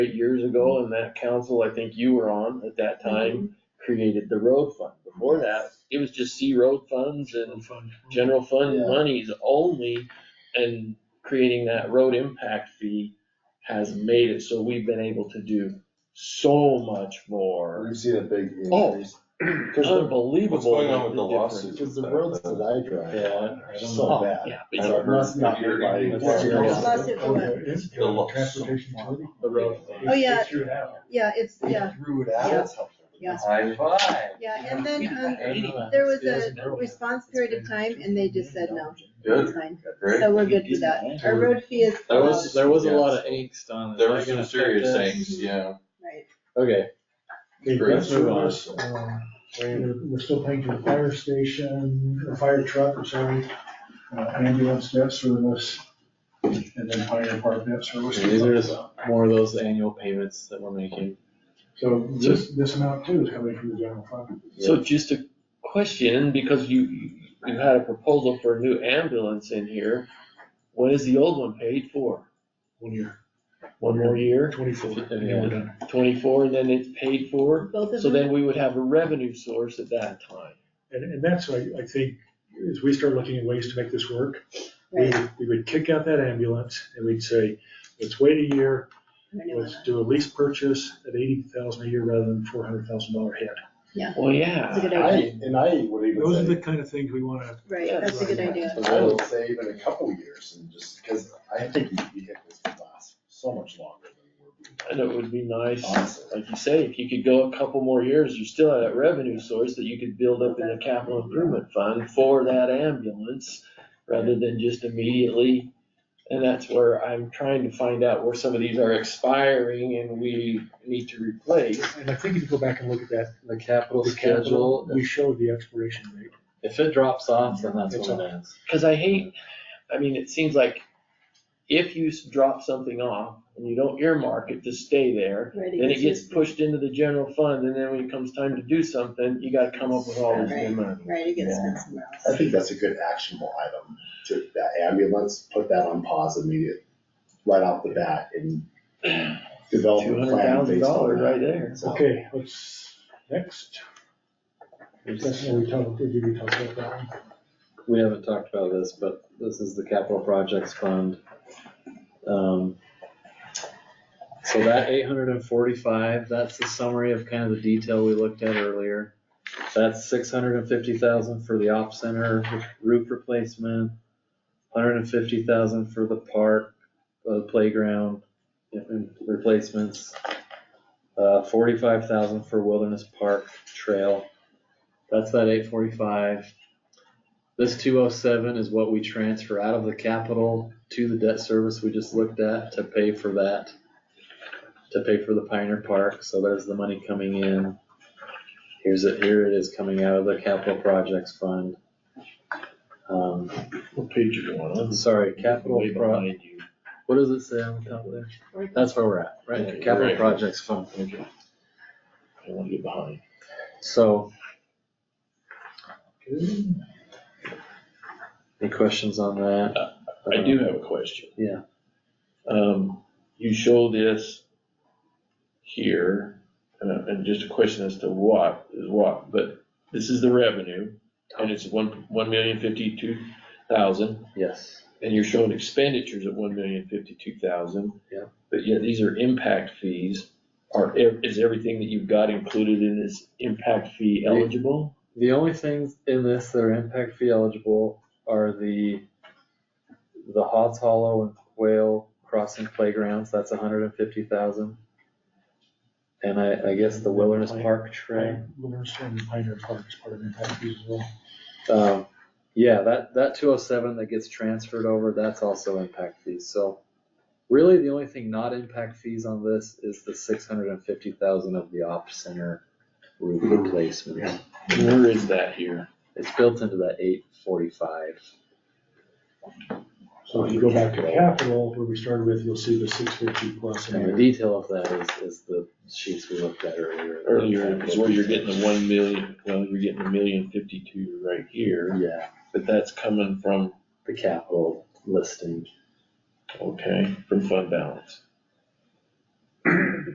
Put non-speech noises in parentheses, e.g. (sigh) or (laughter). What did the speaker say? eight years ago, and that council, I think you were on at that time, created the road fund. Before that, it was just C road funds and general fund Mm-hmm. Yeah. monies only, and creating that road impact fee has made it so we've been able to do so much more. We've seen a big Oh, increase. (clears throat) Because unbelievable. What's going on with the difference. lawsuit? the roads that I drive Yeah. are so Oh, bad. Yeah, but So it must not be like- What's your- Unless it Oh, was- Transportation utility. the road fund. Oh, yeah. Threw it out. Yeah, it's, yeah, Through it Yeah. out. Yeah. High five. yeah, and then, um, Eighty. there was a response period of time and they just said no, it's Good, fine, great. so we're good with that. Our road fee is, That um, was- There was a lot of angst on it. There Am I were some gonna serious affect us? things, yeah. right, Okay, Okay, Great. that's us. Um, We're we're still paying for the fire station, the fire truck, I'm sorry, uh, ambulance debt service, and then fire department debt service. Yeah, these are just more of those annual payments that we're making. So this, this amount too is coming from the general fund. So just a question, because you, you had a proposal for a new ambulance in here. When is the old one paid for? One year, One more year, twenty-four, and Yeah. we're done. twenty-four, and then it's paid for? both of So them, then we would have a revenue source at that time. And, and that's why I think, as we start looking at ways to make this work, we, right, we would kick out that ambulance and we'd say, let's wait a year, our new Let's one. do a lease purchase at eighty thousand a year rather than four hundred thousand dollar head. Well, yeah. That's a good I, idea, and I would Those are even the say, kind of things we wanna, right, that's a good idea, I would say even a couple years and just, because I think these vehicles would last so much longer than And we're. it would be nice, Honestly. like you say, if you could go a couple more years, you still have that revenue source that you could build up in the capital improvement fund for that ambulance rather than just immediately. And that's where I'm trying to find out where some of these are expiring and we need to replace. and I think if you go back and look at that, The capital the capital, schedule, we showed the expiration rate. if it drops off, then that's It's what it is. Cause I hate, I mean, it seems like if you s- drop something off and you don't earmark it to stay there, right, then it gets used- pushed into the general fund and then when it comes time to do something, you gotta come up with all this new money. Right, it gets spent somewhere else, I think that's a good actionable item, to that ambulance, put that on pause immediate, right off the bat and develop Two a hundred plan thousand based on dollars that. right there. So- Okay, let's, next. That's what we talked, we did we talk about that one? We haven't talked about this, but this is the capital projects fund. Um, So that eight hundred and forty-five, that's the summary of kind of the detail we looked at earlier. That's six hundred and fifty thousand for the op center roof replacement, hundred and fifty thousand for the park, uh, playground and replacements, uh, forty-five thousand for wilderness park trail. That's that eight forty-five. This two oh seven is what we transfer out of the capital to the debt service we just looked at to pay for that. To pay for the Pioneer Park, so there's the money coming in. Here's it, here it is coming out of the capital projects fund. Um, What page you going I'm sorry, capital pro, what does it say on the top there? Right. That's where we're at, right, Okay, capital right. projects fund. I wanna get behind. So, Okay. any questions on that? I do have a question. Yeah. Um, you show this here, and, uh, and just a question as to what is what, but this is the revenue, and it's one, one million fifty-two thousand, Yes. and you're showing expenditures at one million fifty-two thousand. Yeah. But yet these are impact fees. Are, ev- is everything that you've got included in this impact fee eligible? The only things in this that are impact fee eligible are the, the Hots Hollow and Quail Crossing Playgrounds, that's hundred and fifty thousand. And I, I guess the Wilderness Park Trail, Wilderness and Pioneer Park is part of the impact fees as well. um, yeah, that, that two oh seven that gets transferred over, that's also impact fees, so. Really, the only thing not impact fees on this is the six hundred and fifty thousand of the op center roof replacement. Where is that here? It's built into that eight forty-five. So if you go back to capital, where we started with, you'll see the six fifty plus. in And the there. detail of that is, is the sheets we looked at earlier. Earlier is where you're getting the one million, well, you're getting a million fifty-two right here. Yeah, But that's coming from, the capital listing. okay, from fund balance.